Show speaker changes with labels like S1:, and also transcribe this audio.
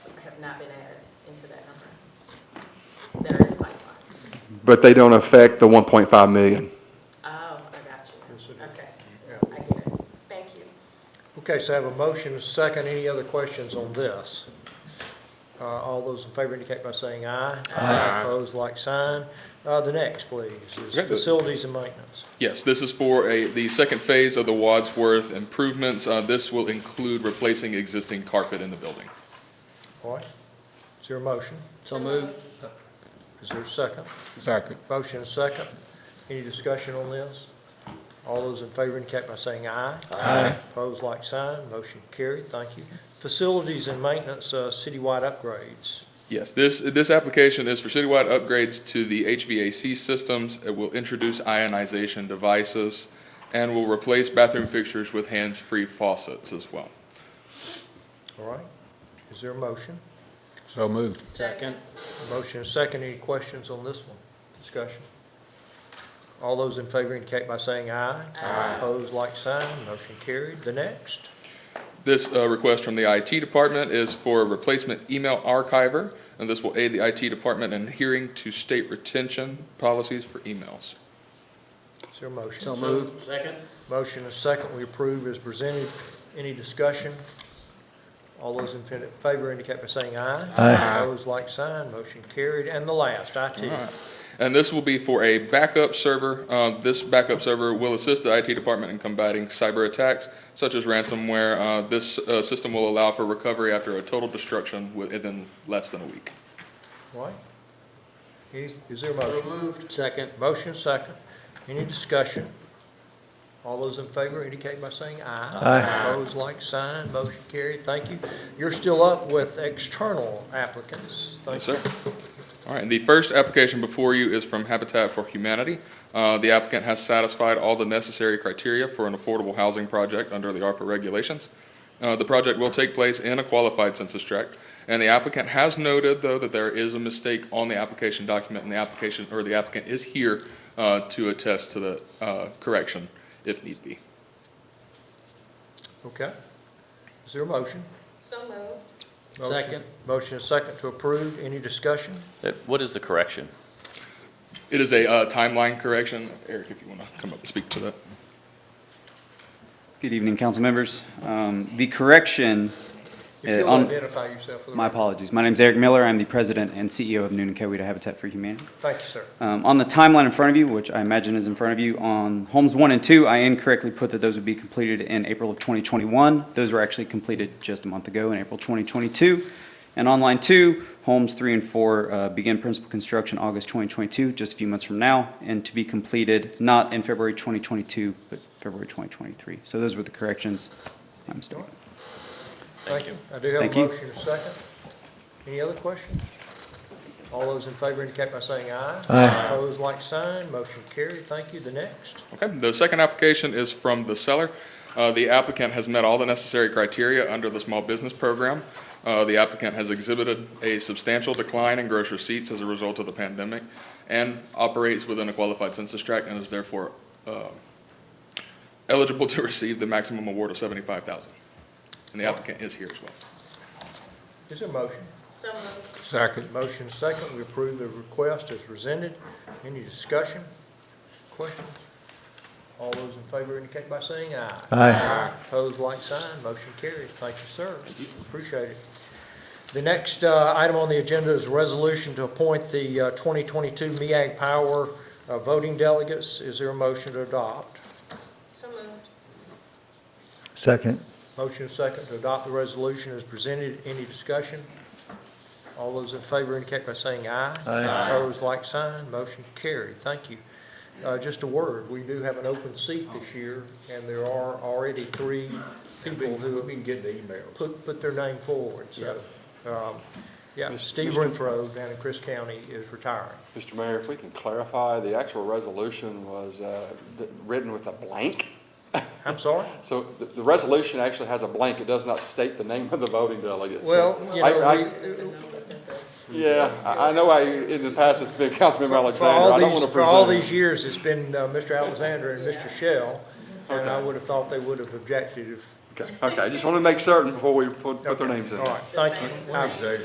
S1: have not been added into that number. That are in the pipeline.
S2: But they don't affect the 1.5 million.
S1: Oh, I got
S3: Yes,
S1: you.
S3: it is.
S1: Okay,
S3: Yeah.
S1: I get it. Thank you.
S3: Okay, so I have a motion, a second, any other questions on this? Uh, All those in favor indicate by saying aye. Aye. Opposed, like sign. Uh, The next, please, is
S4: Okay.
S3: facilities and maintenance.
S4: Yes, this is for a, the second phase of the Wadsworth improvements. Uh, This will include replacing existing carpet in the building.
S3: All right, is there a motion?
S5: So moved.
S3: Is there a second?
S5: Second.
S3: Motion and second. Any discussion on this? All those in favor indicate by saying aye. Aye. Opposed, like sign. Motion carried. Thank you. Facilities and maintenance, uh, citywide upgrades.
S4: Yes, this, this application is for citywide upgrades to the HVAC systems. It will introduce ionization devices and will replace bathroom fixtures with hands-free faucets as well.
S3: All right, is there a motion?
S5: So moved.
S1: Second.
S3: Motion and second. Any questions on this one? Discussion. All those in favor indicate by saying aye. Aye. Opposed, like sign. Motion carried. The next.
S4: This uh, request from the IT department is for a replacement email archiver, and this will aid the IT department in adhering to state retention policies for emails.
S3: Is there a motion?
S5: So moved.
S6: Second?
S3: Motion is second, we approve as presented. Any discussion? All those in fin- favor indicate by saying aye. Aye. Opposed, like sign, motion carried. And the last, IT.
S5: Uh-huh.
S4: And this will be for a backup server. Uh, This backup server will assist the IT department in combating cyber attacks such as ransomware. Uh, This uh, system will allow for recovery after a total destruction within less than a week.
S3: Right? Is is there a motion?
S6: moved.
S3: Second. Motion second. Any discussion? All those in favor indicate by saying aye. Aye. Opposed, like sign, motion carried. Thank you. You're still up with external applicants. Thank
S4: Yes,
S3: you.
S4: sir. All right, and the first application before you is from Habitat for Humanity. Uh, The applicant has satisfied all the necessary criteria for an affordable housing project under the ARPA regulations. Uh, The project will take place in a qualified census tract, and the applicant has noted, though, that there is a mistake on the application document, and the application, or the applicant is here uh, to attest to the uh, correction if need be.
S3: Okay. Is there a motion?
S1: So moved.
S3: Motion-
S5: Second.
S3: Motion is second to approve. Any discussion?
S7: Uh, What is the correction?
S4: It is a uh, timeline correction. Eric, if you want to come up and speak to that.
S8: Good evening, council members. Um, The correction,
S3: If
S8: Uh,
S3: you'll
S8: on-
S3: identify yourself for the
S8: my
S3: record.
S8: apologies. My name's Eric Miller. I'm the president and CEO of Noonan Coweta Habitat for Humanity.
S3: Thank you, sir.
S8: Um, On the timeline in front of you, which I imagine is in front of you, on homes one and two, I incorrectly put that those would be completed in April of 2021. Those were actually completed just a month ago in April 2022. And on line two, homes three and four uh, begin principal construction August 2022, just a few months from now, and to be completed not in February 2022, but February 2023. So those were the corrections I'm stating.
S3: Thank you. I do have
S8: Thank
S3: a
S8: you.
S3: motion and a second. Any other questions? All those in favor indicate by saying aye. Aye. Opposed, like sign. Motion carried. Thank you. The next.
S4: Okay, the second application is from the seller. Uh, The applicant has met all the necessary criteria under the small business program. Uh, The applicant has exhibited a substantial decline in gross receipts as a result of the pandemic and operates within a qualified census tract and is therefore uh, eligible to receive the maximum award of seventy-five thousand. And the applicant is here as well.
S3: Is there a motion?
S1: So moved.
S5: Second.
S3: Motion and second. We approve the request as presented. Any discussion? Questions? All those in favor indicate by saying aye. Aye. Opposed, like sign. Motion carried. Thank you, sir. Appreciate it. The next uh, item on the agenda is a resolution to appoint the uh, 2022 MEAG Power uh, voting delegates. Is there a motion to adopt?
S1: So moved.
S9: Second.
S3: Motion is second to adopt the resolution as presented. Any discussion? All those in favor indicate by saying aye.
S9: Aye.
S3: Opposed, like sign. Motion carried. Thank you. Uh, Just a word, we do have an open seat this year, and there are already three people who
S5: been getting the emails.
S3: put, put their name forward. So, um, yeah, Steve Renfro down in Chris County is retiring.
S10: Mr. Mayor, if we can clarify, the actual resolution was uh, d- written with a blank.
S3: I'm sorry?
S10: So the- the resolution actually has a blank. It does not state the name of the voting delegate. So-
S3: Well, you
S10: I-
S3: know,
S10: I-
S3: we,
S10: Yeah, I I know I, in the past, it's been Councilmember
S3: For all
S10: Alexander. I don't
S3: these,
S10: want to
S3: for all
S10: presume.
S3: these years, it's been uh, Mr. Alexander and Mr. Shell, and I would have thought they would have objected if.
S10: Okay, Okay, I just want to make certain before we put put their names in.
S3: All right, thank you. I-